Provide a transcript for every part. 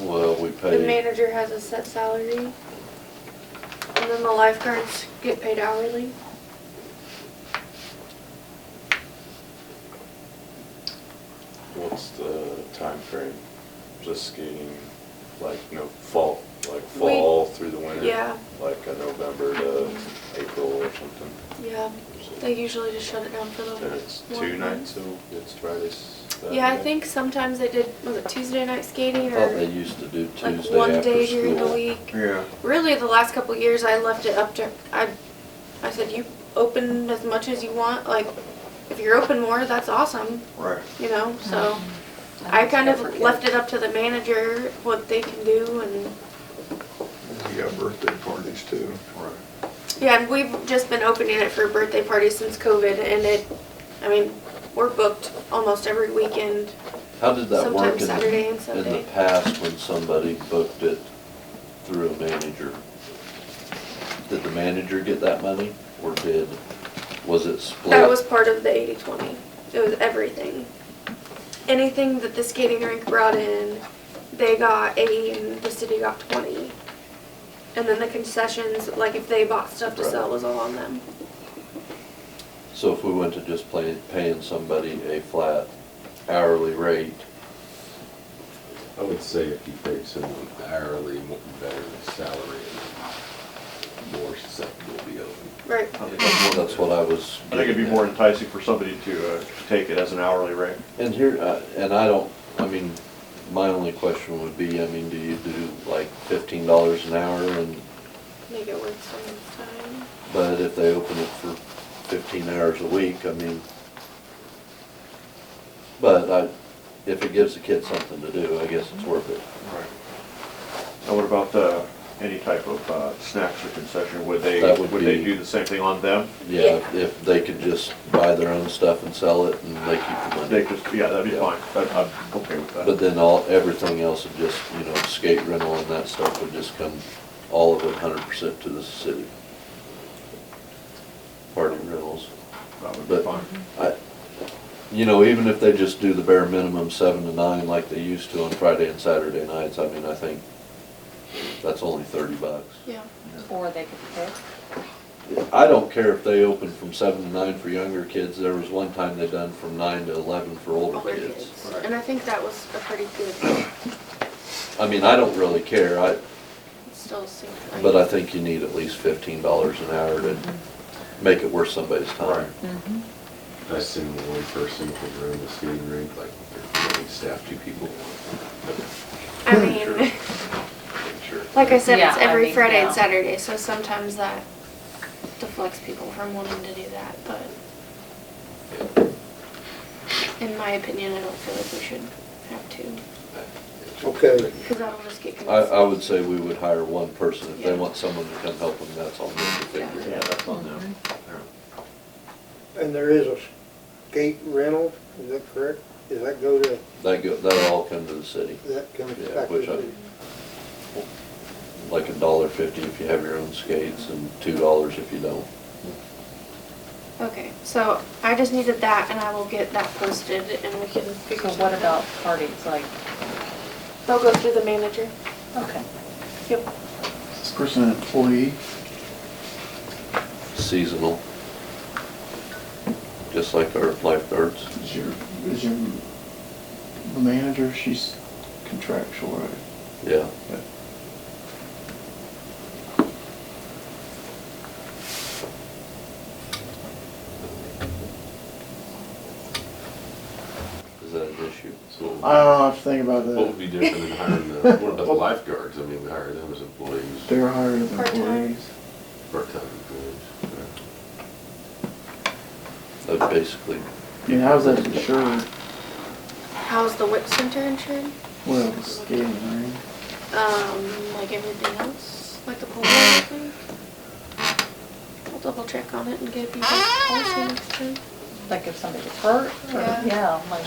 Well, we The pay, manager has a set salary. And then the lifeguards get paid hourly. what's the time frame? Just skating, like, no, fall, like We- fall through the winter? Yeah, Like a November to April or something? yeah. So- They usually just shut it down for the And it's two one nights, so it's Fridays. Saturday. month. Yeah, I think sometimes they did, was it Tuesday night I skating thought they or used to do Tuesday after like school. one day during the week? Yeah. Really, the last couple of years, I left it up to, I, I said, you open as much as you want, like, if you're open more, that's awesome, Right. you know, so. I kind of left it up to the manager, what they can do and, You got birthday parties too. Right. yeah, and we've just been opening it for birthday parties since COVID and it, I mean, we're booked almost every weekend, How did that work sometimes in Saturday and the, in the Sunday. past when somebody booked it through a manager? Did the manager get that money or did, was it split? That was part of the eighty twenty. It was everything. Anything that the skating rink brought in, they got eighty and the city got twenty. And then the concessions, like if they bought stuff to sell, was all on them. So if we went to just play, paying somebody a flat hourly rate, I would say if you paid someone hourly, more better than salary, more susceptible to be open. Right. that's what I was. I think it'd be getting more at. enticing for somebody to uh, take it as an hourly rate. And here, uh, and I don't, I mean, my only question would be, I mean, do you do like fifteen dollars an hour and, Make it work sometime. but if they open it for fifteen hours a week, I mean, but I, if it gives the kid something to do, I guess it's worth it. Right. Now, what about uh, any type of uh, snacks or concession? Would they, That would would they be- do the same thing on them? Yeah, if- if they could just buy their own stuff and sell it and they keep the They money. just, yeah, that'd be Yeah. fine. I'd- I'm okay with But that. then all, everything else would just, you know, skate rental and that stuff would just come, all of it hundred percent to the city. Party rentals. That would be but- fine. I, you know, even if they just do the bare minimum seven to nine like they used to on Friday and Saturday nights, I mean, I think that's only thirty bucks. Yeah. Or they could pick. I don't care if they open from seven to nine for younger kids, there was one time they done from nine to eleven for older Older kids. kids. And I think that was a pretty good, I mean, I don't really care, I, still seemed like. but I think you need at least fifteen dollars an hour to make it worth somebody's time. Mm-hmm. I assume the one person could run the skating rink, like, there's only staff, two people. I mean, Sure. like I said, it's Yeah, I every mean, Friday and yeah. Saturday, so sometimes that deflects people from wanting to do that, but. In my opinion, I don't feel like we should have two, Okay. cause that'll just get. I, I confusing. would say we would hire one person, if they Yeah. want someone to come help them, that's on them to figure it Yeah, out. that's on them. And there is a skate rental, is that correct? Does that go to, That go, that'll all come to the city. that comes Yeah, back to which I- the, like a dollar fifty if you have your own skates and two dollars if you don't. Okay, so I just needed that and I will get that posted and we can So figure something out. what about parties, like, They'll go through the manager. okay. Yep. This person an employee? Seasonal. Just like our lifeguards. Is your, is your manager, she's contractual, right? Yeah. Is that an issue? I don't know, I have to think about What would that. be different than hiring the, what about the lifeguards? I mean, we hire them as employees, They're hired as Part-time. employees. part-time employees. yeah. That basically, I mean, how's that insured? How's the WIP center insured? Well, the skating, right? Um, like everything else, like the pool, I think. I'll double check on it and give you the policy next time. Like if somebody gets hurt, or, Yeah. yeah, like,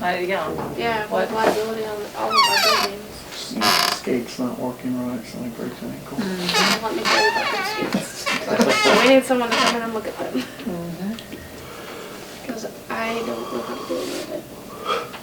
I, yeah. Yeah, we have What? liability on all of our buildings. The Skate's not working right, somebody breaks an ankle. Don't Let me tell you about those kids. We need someone to come in and look at them, Mhm. cause I don't know how to deal with it.